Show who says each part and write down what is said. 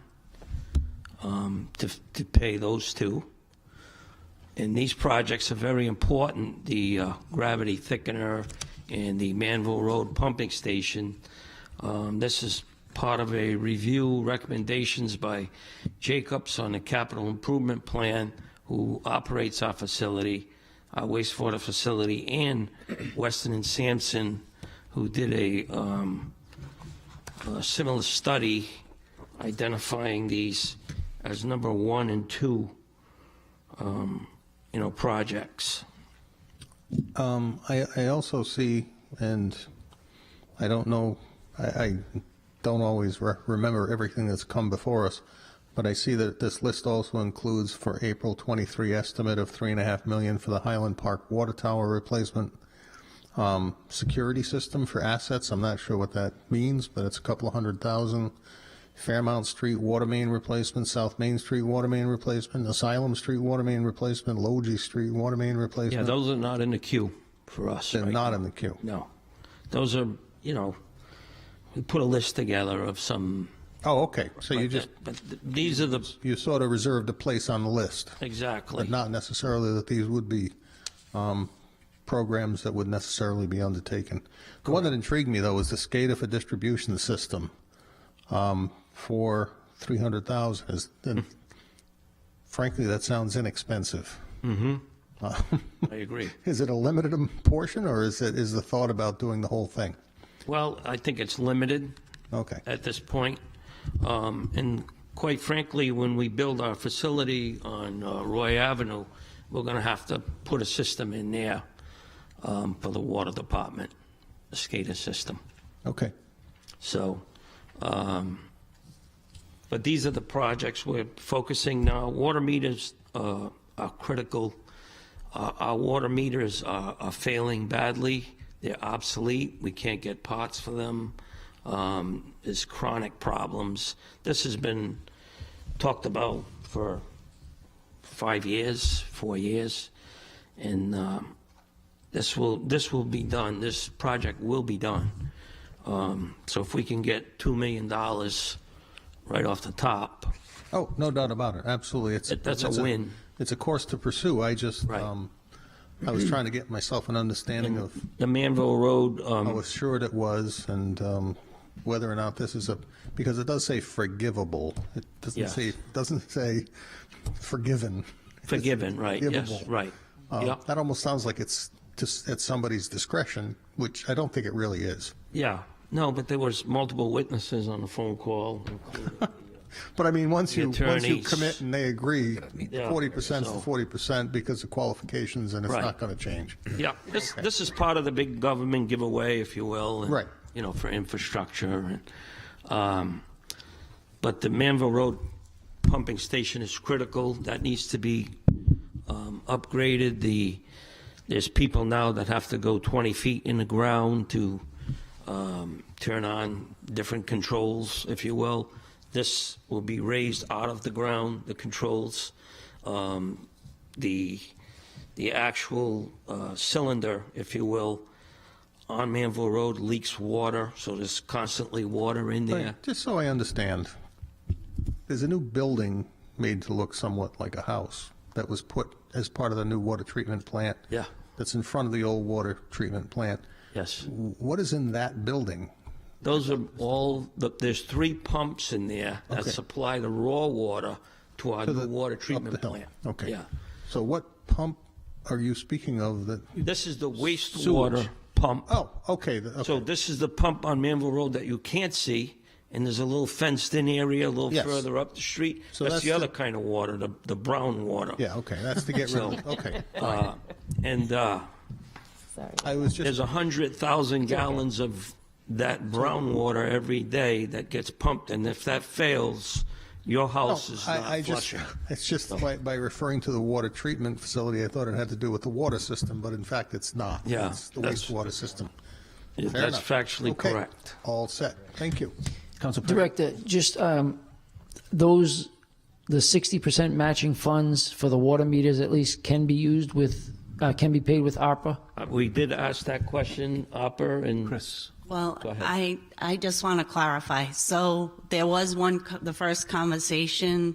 Speaker 1: um, to, to pay those two. And these projects are very important, the uh, gravity thickener and the Manville Road pumping station. Um, This is part of a review recommendations by Jacobs on the capital improvement plan, who operates our facility, our wastewater facility, and Weston and Sampson, who did a um, a similar study identifying these as number one and two um, you know, projects.
Speaker 2: Um, I, I also see, and I don't know, I, I don't always re- remember everything that's come before us, but I see that this list also includes for April 23 estimate of three and a half million for the Highland Park water tower replacement. Um, security system for assets, I'm not sure what that means, but it's a couple of hundred thousand. Fairmount Street water main replacement, South Main Street water main replacement, Asylum Street water main replacement, Logie Street water main
Speaker 1: Yeah,
Speaker 2: replacement.
Speaker 1: those are not in the queue for us.
Speaker 2: They're
Speaker 1: right?
Speaker 2: not in the queue.
Speaker 1: No. Those are, you know, we put a list together of some.
Speaker 2: Oh, okay. So you
Speaker 1: like
Speaker 2: just,
Speaker 1: that, But th- these are the,
Speaker 2: you sort of reserved a place on the list,
Speaker 1: exactly.
Speaker 2: but not necessarily that these would be um, programs that would necessarily be undertaken. The one that intrigued me, though, was the SCADA for distribution system um, for 300,000. Is- and Frankly, that sounds inexpensive.
Speaker 1: I agree.
Speaker 2: Is it a limited portion, or is it, is the thought about doing the whole thing?
Speaker 1: Well, I think it's limited
Speaker 2: Okay.
Speaker 1: at this point. Um, And quite frankly, when we build our facility on uh, Roy Avenue, we're going to have to put a system in there um, for the water department, a SCADA system.
Speaker 2: Okay.
Speaker 1: So, um, but these are the projects we're focusing now. Water meters uh, are critical. Uh, Our water meters are are failing badly. They're obsolete. We can't get parts for them. Um, There's chronic problems. This has been talked about for five years, four years, and um, this will, this will be done, this project will be done. Um, So if we can get $2 million right off the top,
Speaker 2: Oh, no doubt about it, absolutely. It's-
Speaker 1: That- that's a
Speaker 2: it's
Speaker 1: win.
Speaker 2: It's a course to pursue, I just,
Speaker 1: Right.
Speaker 2: um, I was trying to get myself an understanding of
Speaker 1: the Manville Road,
Speaker 2: how
Speaker 1: um,
Speaker 2: assured it was, and um, whether or not this is a, because it does say forgivable, it doesn't
Speaker 1: Yes.
Speaker 2: say, doesn't say forgiven.
Speaker 1: forgiven, right, yes,
Speaker 2: forgivable.
Speaker 1: right.
Speaker 2: Um,
Speaker 1: Yeah,
Speaker 2: That almost sounds like it's just at somebody's discretion, which I don't think it really is.
Speaker 1: yeah, no, but there was multiple witnesses on the phone call.
Speaker 2: But I mean, once
Speaker 1: The
Speaker 2: you, once you
Speaker 1: attorneys.
Speaker 2: commit and they agree,
Speaker 1: Yeah.
Speaker 2: 40% is
Speaker 1: So-
Speaker 2: 40% because of qualifications, and it's
Speaker 1: Right.
Speaker 2: not going to change.
Speaker 1: Yeah, this, this is part of the big government giveaway, if you will. and,
Speaker 2: Right.
Speaker 1: You know, for infrastructure and, um, but the Manville Road pumping station is critical. That needs to be, um, upgraded. The, there's people now that have to go 20 feet in the ground to, um, turn on different controls, if you will. This will be raised out of the ground, the controls. Um, the, the actual uh, cylinder, if you will, on Manville Road leaks water, so there's constantly water in there.
Speaker 2: Wait, Just so I understand, there's a new building made to look somewhat like a house that was put as part of the new water treatment plant.
Speaker 1: Yeah.
Speaker 2: That's in front of the old water treatment plant.
Speaker 1: Yes.
Speaker 2: W- What is in that building?
Speaker 1: Those are all, the- there's three pumps in there that
Speaker 2: Okay.
Speaker 1: supply the raw water to our
Speaker 2: To the-
Speaker 1: new water
Speaker 2: up the
Speaker 1: treatment
Speaker 2: hill.
Speaker 1: plant.
Speaker 2: Okay.
Speaker 1: Yeah.
Speaker 2: So what pump are you speaking of that,
Speaker 1: This is the wastewater pump.
Speaker 2: oh, okay, the-
Speaker 1: So
Speaker 2: okay,
Speaker 1: this is the pump on Manville Road that you can't see, and there's a little fenced-in area a little
Speaker 2: Yes.
Speaker 1: further up the street.
Speaker 2: So
Speaker 1: That's
Speaker 2: that's
Speaker 1: the other
Speaker 2: the-
Speaker 1: kind of water, the, the brown water.
Speaker 2: yeah, okay, that's to get rid of, okay.
Speaker 1: Uh, And, uh,
Speaker 3: Sorry.
Speaker 2: I was
Speaker 1: There's
Speaker 2: just,
Speaker 1: 100,000 gallons of that brown water every day that gets pumped, and if that fails, your
Speaker 2: no,
Speaker 1: house is
Speaker 2: Oh, I, I
Speaker 1: not
Speaker 2: just,
Speaker 1: flushing.
Speaker 2: it's just by, by referring to the water treatment facility, I thought it had to do with the water system, but in fact, it's not.
Speaker 1: Yeah,
Speaker 2: It's the
Speaker 1: that's-
Speaker 2: wastewater system. Fair
Speaker 1: That's
Speaker 2: enough.
Speaker 1: factually
Speaker 2: Okay.
Speaker 1: correct.
Speaker 2: All set. Thank you.
Speaker 4: Council Perry.
Speaker 5: Director, just um, those, the 60% matching funds for the water meters at least can be used with, uh, can be paid with ARPA?
Speaker 1: Uh, We did ask that question, Upper, and
Speaker 4: Chris.
Speaker 3: Well,
Speaker 1: ahead.
Speaker 3: I, I just want to clarify. So there was one, co- the first conversation